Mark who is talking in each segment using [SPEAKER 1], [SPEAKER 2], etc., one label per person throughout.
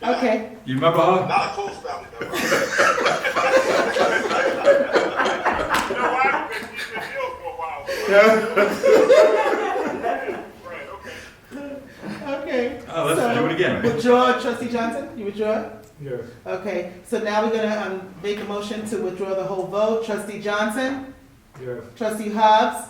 [SPEAKER 1] Okay,
[SPEAKER 2] You remember her?
[SPEAKER 3] Not a close family member. You know why? Because you've been ill for a while. Right, okay.
[SPEAKER 1] okay.
[SPEAKER 2] Oh, let's
[SPEAKER 1] So,
[SPEAKER 2] do it again.
[SPEAKER 1] Withdraw, trustee Johnson, you withdraw?
[SPEAKER 4] Yes.
[SPEAKER 1] Okay, so now we're gonna, um, make a motion to withdraw the whole vote. Trustee Johnson,
[SPEAKER 4] Yes.
[SPEAKER 1] trustee Hobbs.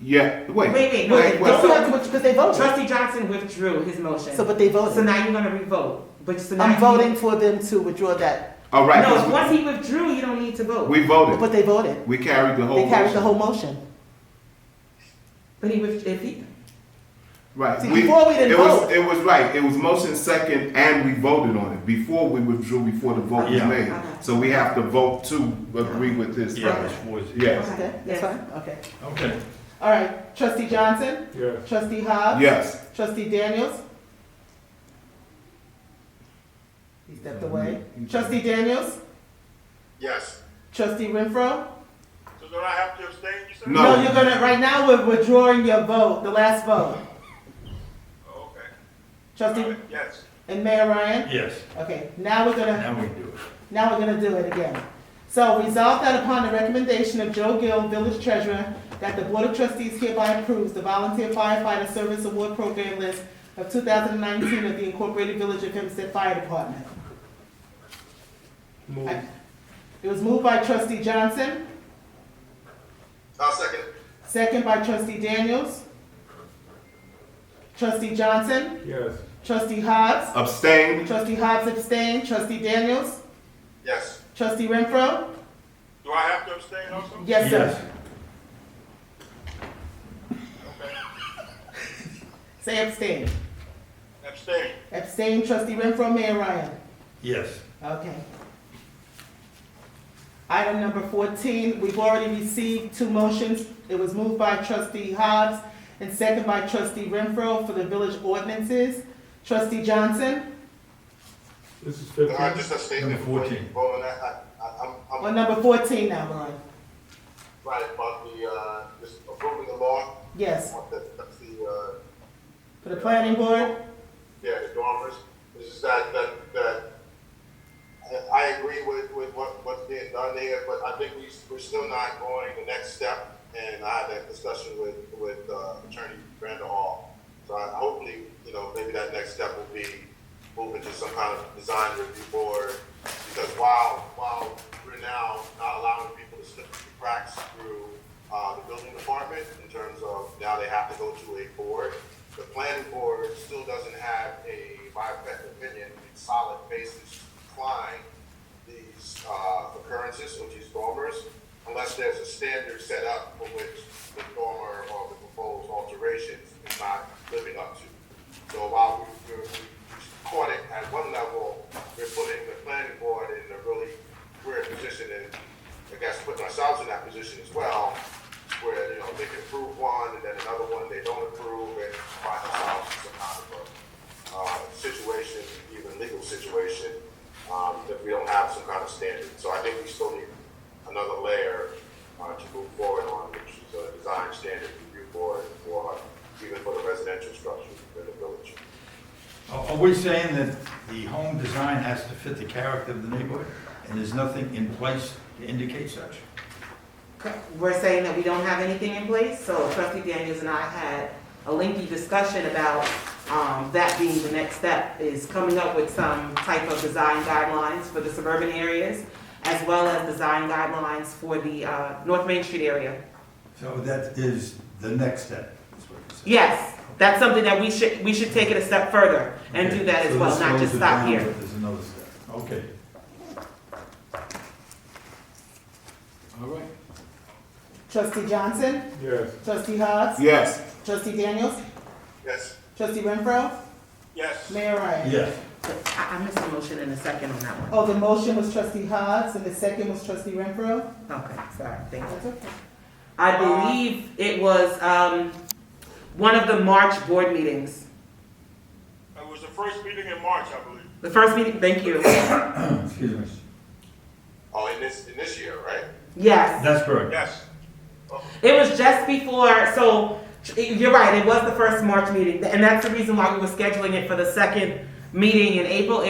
[SPEAKER 5] Yeah, wait.
[SPEAKER 6] Wait, wait, no,
[SPEAKER 1] Wait,
[SPEAKER 5] wait,
[SPEAKER 1] don't
[SPEAKER 6] so-
[SPEAKER 1] have to, withdraw, because they voted.
[SPEAKER 6] Trustee Johnson withdrew his motion.
[SPEAKER 1] So, but they
[SPEAKER 6] So
[SPEAKER 1] voted.
[SPEAKER 6] now you're gonna revote, but so now.
[SPEAKER 1] I'm
[SPEAKER 6] you-
[SPEAKER 1] voting for them to withdraw that,
[SPEAKER 5] All right,
[SPEAKER 6] No,
[SPEAKER 5] 'cause
[SPEAKER 6] once he withdrew, you don't need to vote,
[SPEAKER 5] we, we voted.
[SPEAKER 1] but they voted.
[SPEAKER 5] We carried the whole.
[SPEAKER 3] Oh,
[SPEAKER 1] They carried the
[SPEAKER 5] motion.
[SPEAKER 1] whole motion.
[SPEAKER 6] but he withdrew, if he,
[SPEAKER 5] Right.
[SPEAKER 1] See, before we didn't
[SPEAKER 5] it was,
[SPEAKER 1] vote.
[SPEAKER 5] It was right. It was motion second, and we voted on it before we withdrew. Before the vote
[SPEAKER 2] Yeah.
[SPEAKER 5] was made,
[SPEAKER 6] Okay.
[SPEAKER 5] so we have to vote to agree with this.
[SPEAKER 2] Yeah, which was-
[SPEAKER 5] Yes.
[SPEAKER 1] Okay, that's
[SPEAKER 6] Yes.
[SPEAKER 1] fine, okay.
[SPEAKER 2] Okay.
[SPEAKER 1] All right, trustee Johnson,
[SPEAKER 4] Yes.
[SPEAKER 1] trustee Hobbs.
[SPEAKER 5] Yes.
[SPEAKER 1] Trustee Daniels? He stepped away. Trustee Daniels?
[SPEAKER 3] Yes.
[SPEAKER 1] Trustee Renfro?
[SPEAKER 3] So do I have to abstain, you said?
[SPEAKER 5] No.
[SPEAKER 1] you're gonna, right now, we're withdrawing your vote, the last vote.
[SPEAKER 3] Oh, Okay. All
[SPEAKER 1] Trustee,
[SPEAKER 3] right, Yes.
[SPEAKER 1] and Mayor Ryan?
[SPEAKER 2] Yes.
[SPEAKER 1] Okay, now we're gonna,
[SPEAKER 2] Now we do it.
[SPEAKER 1] now we're gonna do it again. So resolve that upon the recommendation of Joe Gill, village treasurer, that the Board of Trustees hereby approves the volunteer firefighter service award program list of two thousand and nineteen of the Incorporated Village of Hempstead Fire Department.
[SPEAKER 4] Move.
[SPEAKER 1] It was moved by trustee Johnson.
[SPEAKER 3] I'll second it.
[SPEAKER 1] Second by trustee Daniels. Trustee Johnson,
[SPEAKER 4] Yes.
[SPEAKER 1] trustee Hobbs,
[SPEAKER 5] Abstain.
[SPEAKER 1] trustee Hobbs abstained, trustee Daniels,
[SPEAKER 3] Yes.
[SPEAKER 1] trustee Renfro.
[SPEAKER 3] Do I have to abstain also?
[SPEAKER 1] Yes,
[SPEAKER 2] Yes.
[SPEAKER 1] sir. Say abstain.
[SPEAKER 3] Abstain.
[SPEAKER 1] Abstain, trustee Renfro, Mayor Ryan.
[SPEAKER 2] Yes.
[SPEAKER 1] Okay. Item number fourteen, we've already received two motions. It was moved by trustee Hobbs and second by trustee Renfro for the village ordinances. Trustee Johnson,
[SPEAKER 4] This is
[SPEAKER 3] No, I
[SPEAKER 4] fifteen.
[SPEAKER 3] just abstain.
[SPEAKER 2] Number 14.
[SPEAKER 3] Well, and I, I, I- I'm,
[SPEAKER 1] on
[SPEAKER 3] I'm
[SPEAKER 1] number fourteen now, Ryan.
[SPEAKER 3] right about the, uh, just approving the law.
[SPEAKER 1] Yes,
[SPEAKER 3] Want that- That's the, uh,
[SPEAKER 1] for the planning board.
[SPEAKER 3] Yeah, the dormers, this is that, that, that, I- I agree with, with what, what's being done there, but I think we, we're still not going the next step, and I had that discussion with, with uh, Attorney Brandon Hall. So I, hopefully, you know, maybe that next step will be moving to some kind of design review board, because while, while we're now not allowing people to slip through the cracks through, uh, the building department, in terms of now they have to go to a board, the planning board still doesn't have a, my opinion, a solid basis to decline these uh, occurrences, or these dormers, unless there's a standard set up for which the dormer or the proposed alterations is not living up to. So while we- we're, we caught it at one level, we're putting the planning board in a really weird position, and I guess putting ourselves in that position as well, where, you know, they can approve one, and then another one they don't approve, and find ourselves in some kind of a, uh, situation, even legal situation, um, that we don't have some kind of standard. So I think we still need another layer, uh, to move forward on, which is a design standard review board for, even for the residential structure in the village.
[SPEAKER 2] Are are we saying that the home design has to fit the character of the neighborhood? And there's nothing in place to indicate such?
[SPEAKER 6] we're saying that we don't have anything in place, so trustee Daniels and I had a lengthy discussion about, um, that being the next step, is coming up with some type of design guidelines for the suburban areas, as well as design guidelines for the, uh, North Main Street area.
[SPEAKER 2] So that is the next step, is what you're saying?
[SPEAKER 6] Yes, that's something that we should, we should take it a step further and do that as
[SPEAKER 2] So
[SPEAKER 6] well,
[SPEAKER 2] this
[SPEAKER 6] not
[SPEAKER 2] slows
[SPEAKER 6] just
[SPEAKER 2] it
[SPEAKER 6] stop
[SPEAKER 2] down,
[SPEAKER 6] here.
[SPEAKER 2] but There's another step. Okay.
[SPEAKER 5] All right.
[SPEAKER 1] Trustee Johnson,
[SPEAKER 4] Yes.
[SPEAKER 1] trustee Hobbs,
[SPEAKER 5] Yes.
[SPEAKER 1] trustee Daniels,
[SPEAKER 3] Yes,
[SPEAKER 1] trustee Renfro,
[SPEAKER 3] yes.
[SPEAKER 1] Mayor Ryan.
[SPEAKER 2] Yes.
[SPEAKER 6] I, I missed the motion in a second on that one.
[SPEAKER 1] Oh, the motion was trustee Hobbs and the second was trustee Renfro?
[SPEAKER 6] Okay, sorry, thank you.
[SPEAKER 1] That's okay.
[SPEAKER 6] I believe it was, um, one of the March board meetings.
[SPEAKER 3] It was the first meeting in March, I believe.
[SPEAKER 6] The first meeting, thank you.
[SPEAKER 2] Excuse me.
[SPEAKER 3] Oh, in this, in this year, right?
[SPEAKER 6] Yes,
[SPEAKER 2] That's correct.
[SPEAKER 3] Yes.
[SPEAKER 6] it was just before, so you're right, it was the first March meeting. And that's the reason why we were scheduling it for the second meeting in April.